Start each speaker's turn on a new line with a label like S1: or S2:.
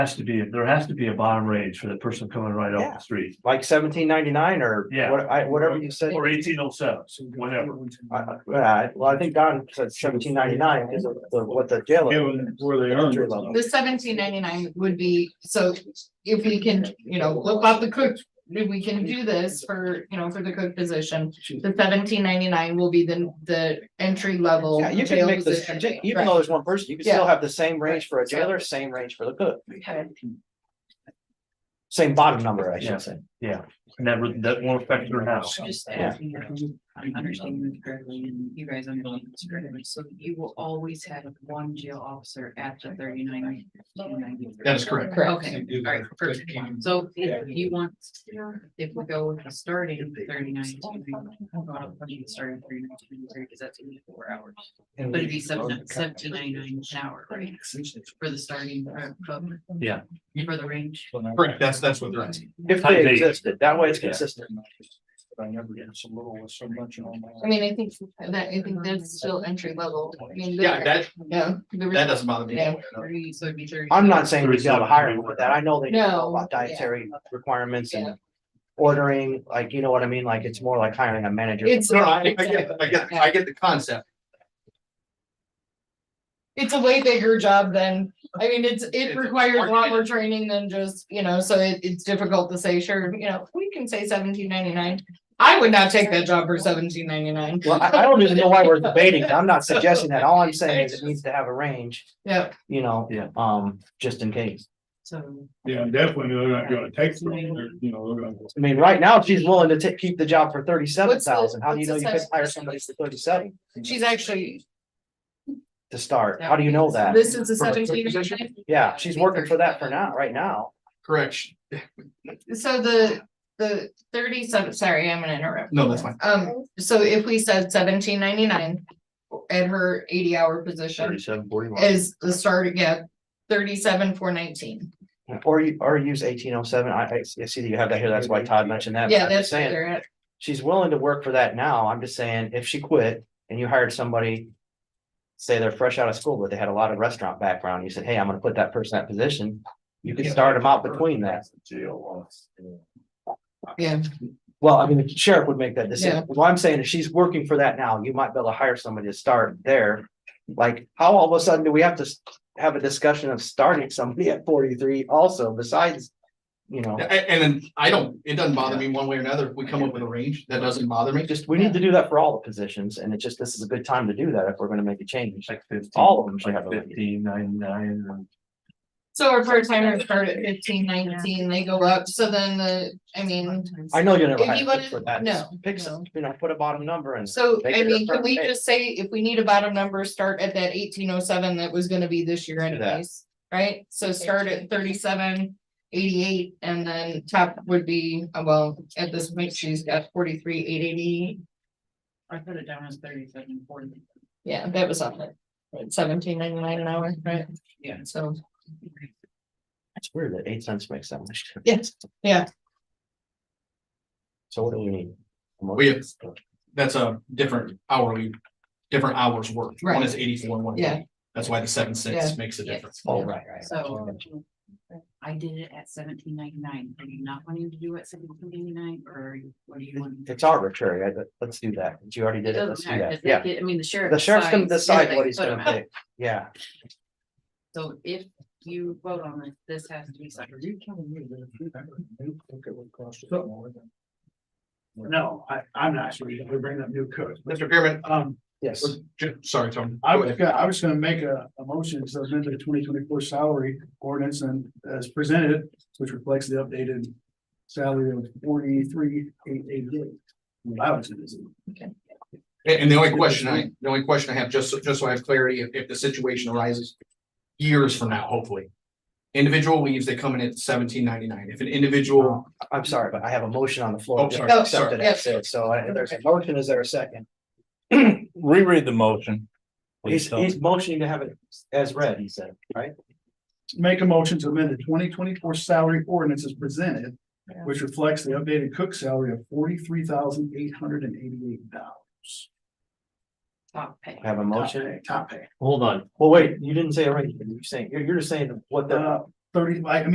S1: Has to be, there has to be a bottom range for the person coming right off
S2: Yeah.
S1: the street,
S2: like seventeen ninety-nine or
S1: Yeah.
S2: what, I, whatever you said.
S1: or eighteen oh seven, whatever.
S2: I- I- yeah, well, I think Don said seventeen ninety-nine is the, what the jail.
S3: Given where they
S2: Entry
S3: are.
S2: level.
S4: The seventeen ninety-nine would be, so if we can, you know, look up the cook, if we can do this for, you know, for the cook position. The seventeen ninety-nine will be the, the entry level.
S2: Yeah, you can
S4: jail
S2: make this,
S4: position.
S2: even though there's one person, you can still have the same range for a jailer, same range for the cook,
S4: Okay.
S2: same bottom number, I
S1: Yeah.
S2: should say.
S1: Never, that won't affect your house.
S5: I'm Just
S2: Yeah.
S5: asking, if I'm- I'm understanding this correctly and you guys understand this correctly, so you will always have one jail officer at the thirty-nine.
S3: That is correct.
S4: Correct.
S5: Okay, all right, perfect. So if you want, if we go with the starting thirty-nine. Starting thirty-nine, because that's only four hours, but it'd be seven, seventeen ninety-nine an hour, right? For the starting, uh, for-
S1: Yeah.
S5: For the range.
S3: Correct, that's, that's what they're.
S2: If
S1: Type
S2: they
S1: eight.
S2: existed, that way it's
S1: Yeah.
S2: consistent.
S3: I never did so little with so much on
S4: I mean, I think that, I think that's still entry level. I mean, the-
S3: Yeah, that,
S4: Yeah. the re-
S3: that doesn't bother me.
S4: Yeah.
S5: Three, so it'd be thirty.
S2: I'm not saying we should have a hiring with that, I know they know
S4: No,
S2: about
S4: yeah.
S2: dietary requirements
S4: Yeah.
S2: and ordering, like, you know what I mean, like, it's more like hiring a manager.
S4: It's,
S3: No, no, I, I get, I get, I get the concept.
S4: it's a way bigger job than, I mean, it's,
S3: It's
S4: it
S3: a
S4: requires a lot
S3: market.
S4: more training than just, you know, so it, it's difficult to say, sure, you know, we can say seventeen ninety-nine. I would not take that job for seventeen ninety-nine.
S2: Well, I, I don't even know why we're debating, I'm not suggesting that, all I'm saying is it needs to have a range,
S4: Yeah,
S2: you know,
S1: Yeah.
S2: um, just in case.
S5: So.
S6: Yeah, definitely, they're not gonna take, from them, they're, you know, they're gonna.
S2: I mean, right now, if she's willing to ta- keep the job for thirty-seven
S4: What's the-
S2: thousand, how do you know
S4: what's
S2: you
S4: the
S2: could hire
S4: size?
S2: somebody for thirty-seven
S4: she's actually,
S2: to start, how do you know that?
S4: this is a
S3: For a cook
S4: seventeen
S3: position?
S4: ninety-nine.
S2: Yeah, she's working for that for now, right now,
S3: Correction.
S4: So the, the thirty-seven, sorry, I'm gonna interrupt.
S3: No, that's fine.
S4: Um, so if we said seventeen ninety-nine at her eighty-hour position
S1: Thirty-seven, forty-one.
S4: is the start again, thirty-seven, four nineteen.
S2: or you, or use eighteen oh seven, I, I see that you have that here, that's why Todd mentioned that. but
S4: Yeah,
S2: I'm just
S4: that's what
S2: Saying,
S4: they're at.
S2: she's willing to work for that now, I'm just saying, if she quit and you hired somebody. Say they're fresh out of school, but they had a lot of restaurant background, you said, hey, I'm gonna put that person in that position, you could start them out between that.
S4: Yeah.
S2: Well, I mean, the sheriff would make that decision.
S4: Yeah.
S2: What I'm saying is she's working for that now. You might be able to hire somebody to start there. Like, how all of a sudden do we have to s- have a discussion of starting somebody at forty-three also besides, you know,
S3: A- And, then I don't, it doesn't bother me one way or another. If we come up with a range, that doesn't bother me.
S2: just, we need to do that for all the positions and it's just, this is a good time to do that if we're gonna make a change.
S1: Like fifteen.
S2: All of them should
S1: Like
S2: have a lady.
S1: fifteen, nine, nine, and
S4: So our part timers start at fifteen nineteen, they go up, so then the, I mean,
S2: I know you're never
S4: If you
S2: hired for
S4: wanted-
S2: that.
S4: no,
S2: Pick, some-
S4: no.
S2: you know, put a bottom number and
S4: so
S2: Make
S4: I
S2: it a
S4: mean, can we
S2: permanent.
S4: just say if we need a bottom number, start at that eighteen oh seven that was gonna be this year
S2: Do that.
S4: anyways? Right, so start at thirty-seven, eighty-eight, and then top would be, uh, well, at this point, she's got forty-three, eight eighty.
S5: I put it down as thirty-seven, forty.
S4: Yeah, that was on it, seventeen ninety-nine an hour, right?
S5: Yeah.
S4: So,
S2: it's weird that eight cents makes that much. difference.
S4: yes, yeah,
S2: So what do we need?
S3: We have- That's a different hourly, different hours worked. One is eighty-four and one. is
S4: Yeah.
S3: 80. That's why the seven
S4: Yeah.
S3: cents makes a difference.
S2: Oh, right, right.
S5: So. I did it at seventeen ninety-nine. Are you not wanting to do it seventeen ninety-nine or are you- what do you want?
S2: It's arbitrary. I, let's do that. You already did it. Let's
S5: Doesn't
S2: do
S5: matter, 'cause
S2: that.
S5: they
S2: Yeah.
S5: get- I mean, the sheriff.
S2: The sheriff's gonna
S5: decides
S2: decide
S5: they
S2: what he's
S5: put 'em
S2: gonna
S5: out.
S2: pick. Yeah.
S5: So if you vote on it, this has to be signed.
S7: No, I, I'm not sure, we bring up new codes, but,
S3: Mr. Pearman,
S7: um,
S2: Yes.
S3: ju- uh, sorry, Tom.
S7: I was, go- I was gonna make a, a motion to amend the twenty twenty-four salary ordinance and as presented, which reflects the updated salary of forty-three, eight, eight, eight. I was gonna do.
S3: And, and the only question I, the only question I have, just, so- just so I have clarity, if, if the situation arises years from now, hopefully. Individual leaves, they come in at seventeen ninety-nine. If an individual,
S2: I'm sorry, but I have a motion on the
S3: Oh,
S2: floor. Just accept
S3: sorry,
S2: it
S4: sorry.
S2: as is. So I- there's a motion. Is there a second?
S8: Reread the motion.
S2: He's, he's motioning to have it as read, he said, right?
S7: Make a motion to amend the twenty twenty-four salary ordinance as presented,
S4: Yeah.
S7: which reflects the updated cook salary of forty-three thousand, eight hundred and eighty-eight dollars.
S5: Top pay.
S2: I Have a motion.
S7: Top pay.
S1: hold on,
S2: Well, wait, you didn't say it right. You're saying, you're, you're just saying what the,
S7: Uh, thirty, I I mean,